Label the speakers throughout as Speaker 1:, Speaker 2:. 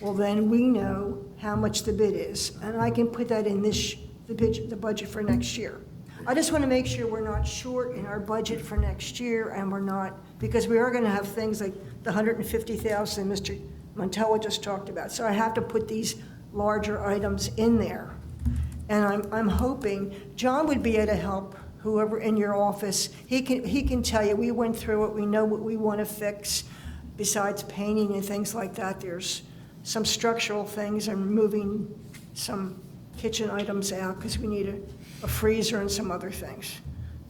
Speaker 1: well, then we know how much the bid is, and I can put that in this, the budget, the budget for next year. I just want to make sure we're not short in our budget for next year, and we're not, because we are going to have things like the hundred and fifty thousand Mr. Montella just talked about, so I have to put these larger items in there. And I'm, I'm hoping, John would be able to help whoever in your office. He can, he can tell you, we went through it, we know what we want to fix. Besides painting and things like that, there's some structural things and moving some kitchen items out because we need a, a freezer and some other things.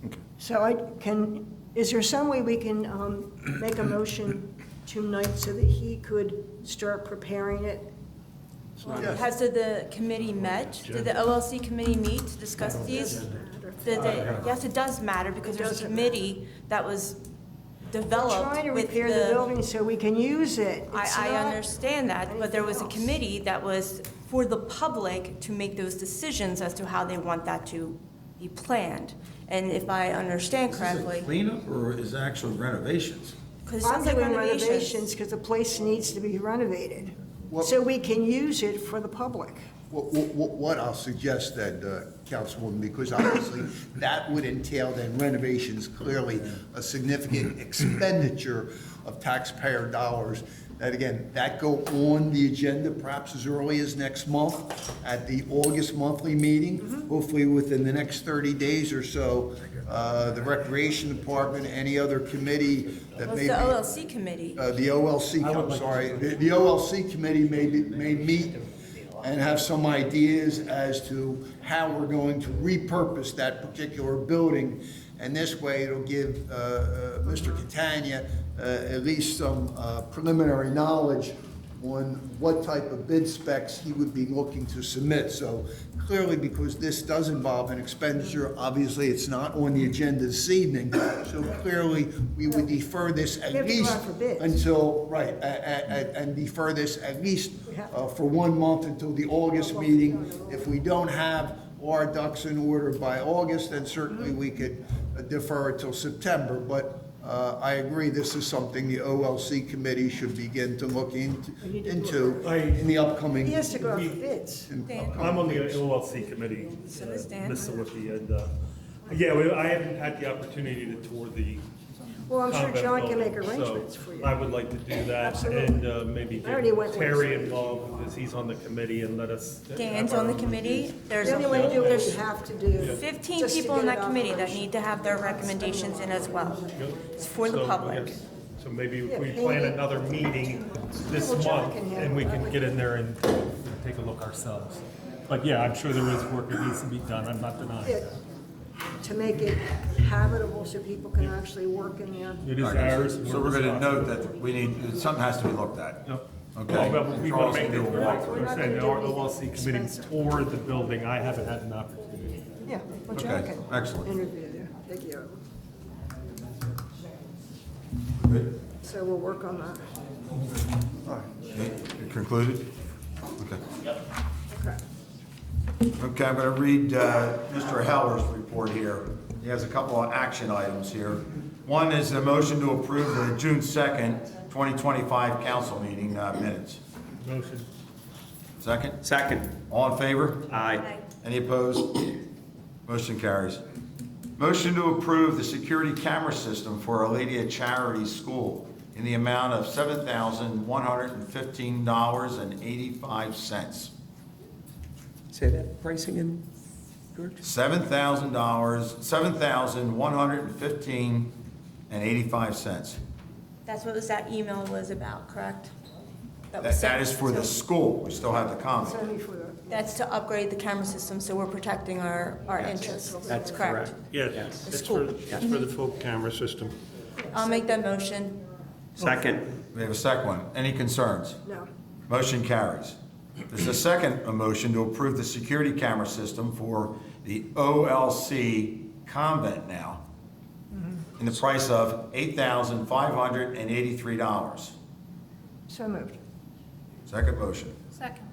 Speaker 2: Okay.
Speaker 1: So I can, is there some way we can um, make a motion tonight so that he could start preparing it?
Speaker 3: Has did the committee met? Did the OLC committee meet to discuss these? Did they- yes, it does matter because
Speaker 1: It
Speaker 3: there's a
Speaker 1: doesn't
Speaker 3: committee that was
Speaker 1: Trying to
Speaker 3: developed with
Speaker 1: repair the
Speaker 3: the.
Speaker 1: building so we can use it. It's
Speaker 3: I, I
Speaker 1: not-
Speaker 3: understand that, but there was a
Speaker 1: anything else.
Speaker 3: committee that was for the public to make those decisions as to how they want that to be planned. And if I understand
Speaker 4: Is
Speaker 3: correctly,
Speaker 4: it cleanup or is it actual renovations?
Speaker 3: because it
Speaker 1: I'm
Speaker 3: sounds like
Speaker 1: doing
Speaker 3: renovations.
Speaker 1: renovations because the place needs to be renovated,
Speaker 5: Well-
Speaker 1: so we can use it for the public.
Speaker 5: What, what, what I'll suggest then, uh, Councilwoman, because obviously that would entail then renovations, clearly a significant expenditure of taxpayer dollars. That again, that go on the agenda perhaps as early as next month at the August monthly meeting. Hopefully within the next thirty days or so, uh, the Recreation Department, any other committee
Speaker 3: It
Speaker 5: that
Speaker 3: was
Speaker 5: may
Speaker 3: the
Speaker 5: be.
Speaker 3: OLC committee.
Speaker 5: Uh, The OLC, I'm sorry, the the OLC committee may, be- may meet and have some ideas as to how we're going to repurpose that particular building. And this way, it'll give uh, uh, Mr. Catania uh, at least some uh, preliminary knowledge on what type of bid specs he would be looking to submit. So clearly, because this does involve an expenditure, obviously, it's not on the agenda this evening. So clearly, we would defer this at
Speaker 1: We have to go
Speaker 5: least
Speaker 1: out for bids.
Speaker 5: until, right, a- a- a- and defer this at least uh, for one month until the August meeting. If we don't have our ducks in order by August, then certainly we could defer it till September. But uh, I agree, this is something the OLC committee should begin to look in- into
Speaker 2: I-
Speaker 5: in the upcoming.
Speaker 1: He has to go out for bids.
Speaker 5: in
Speaker 3: Dan.
Speaker 5: upcoming
Speaker 2: I'm on the
Speaker 5: meetings.
Speaker 2: OLC committee,
Speaker 3: So does Dan.
Speaker 2: Ms. Sawicki, and, uh, yeah, we- I haven't had the opportunity to tour the.
Speaker 1: Well, I'm sure
Speaker 2: Convent
Speaker 1: John can
Speaker 2: building,
Speaker 1: make
Speaker 2: so
Speaker 1: arrangements for you.
Speaker 2: I would like to do that
Speaker 1: Absolutely.
Speaker 2: and uh, maybe
Speaker 1: I already went
Speaker 2: get Terry involved because he's on the committee and let us.
Speaker 3: Dan's on the committee. There's
Speaker 1: The
Speaker 3: a
Speaker 1: only way to do
Speaker 3: whole,
Speaker 1: it, we
Speaker 3: there's
Speaker 1: have to do.
Speaker 3: 15
Speaker 1: just to
Speaker 3: people in
Speaker 1: get it
Speaker 3: that committee that
Speaker 1: operational.
Speaker 3: need to have their recommendations in as well. It's for the
Speaker 2: So,
Speaker 3: public.
Speaker 2: yes. So maybe
Speaker 1: Yeah,
Speaker 2: if we
Speaker 1: maybe-
Speaker 2: plan another meeting this
Speaker 1: Well, John
Speaker 2: month
Speaker 1: can handle
Speaker 2: and we
Speaker 1: it.
Speaker 2: can get in there and take a look ourselves. But yeah, I'm sure there is work that needs to be done. I'm not denying
Speaker 1: it
Speaker 2: that.
Speaker 1: To make it habitable so people can actually work in there.
Speaker 2: It is
Speaker 4: Okay, so-
Speaker 2: ours.
Speaker 4: So we're gonna note that we need, something has to be looked at.
Speaker 2: Yep.
Speaker 4: Okay.
Speaker 2: Well, but we want to make it,
Speaker 4: Charles,
Speaker 1: We're
Speaker 2: we're
Speaker 1: not
Speaker 2: saying, the
Speaker 1: gonna do
Speaker 2: OLC
Speaker 1: anything
Speaker 2: committee
Speaker 1: expensive.
Speaker 2: toured the building. I haven't had an opportunity.
Speaker 1: Yeah, well, John
Speaker 4: Okay,
Speaker 1: can.
Speaker 4: excellent.
Speaker 1: Interview there, thank you.
Speaker 4: Good.
Speaker 1: So we'll work on that.
Speaker 4: Okay, Concluded? Okay.
Speaker 1: Okay.
Speaker 4: Okay, I'm going to read uh, Mr. Heller's report here. He has a couple of action items here. One is a motion to approve the June 2nd, 2025 council meeting uh, minutes.
Speaker 2: Motion.
Speaker 4: Second?
Speaker 6: Second.
Speaker 4: All in favor?
Speaker 6: Aye.
Speaker 4: Any opposed? Motion carries. Motion to approve the security camera system for Aledia Charity School in the amount of $7,115.85.
Speaker 6: Say that pricing in, George?
Speaker 4: Seven thousand dollars, seven thousand one hundred and fifteen and eighty-five cents.
Speaker 3: That's what was, that email was about, correct? That was
Speaker 4: That, that
Speaker 3: sent-
Speaker 4: is for the school, we still have the
Speaker 1: It's
Speaker 4: comment.
Speaker 1: only for the.
Speaker 3: That's to upgrade the camera system, so we're protecting our, our interests. That's correct.
Speaker 7: Yes, it's
Speaker 3: school.
Speaker 7: for, it's for the full camera system.
Speaker 3: I'll make that motion.
Speaker 6: Second.
Speaker 4: We have a second one, any concerns?
Speaker 1: No.
Speaker 4: Motion carries. There's a second motion to approve the security camera system for the OLC convent now in the price of eight thousand five hundred and eighty-three dollars.
Speaker 1: So moved.
Speaker 4: Second motion.
Speaker 8: Second.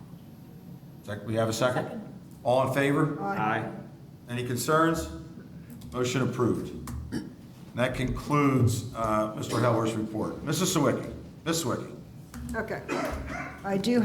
Speaker 4: Sec, we have a second? All in favor?
Speaker 6: Aye.
Speaker 4: Any concerns? Motion approved. And That concludes uh, Mr. Heller's report. Mrs. Sawicki, Ms. Sawicki.
Speaker 1: Okay. I do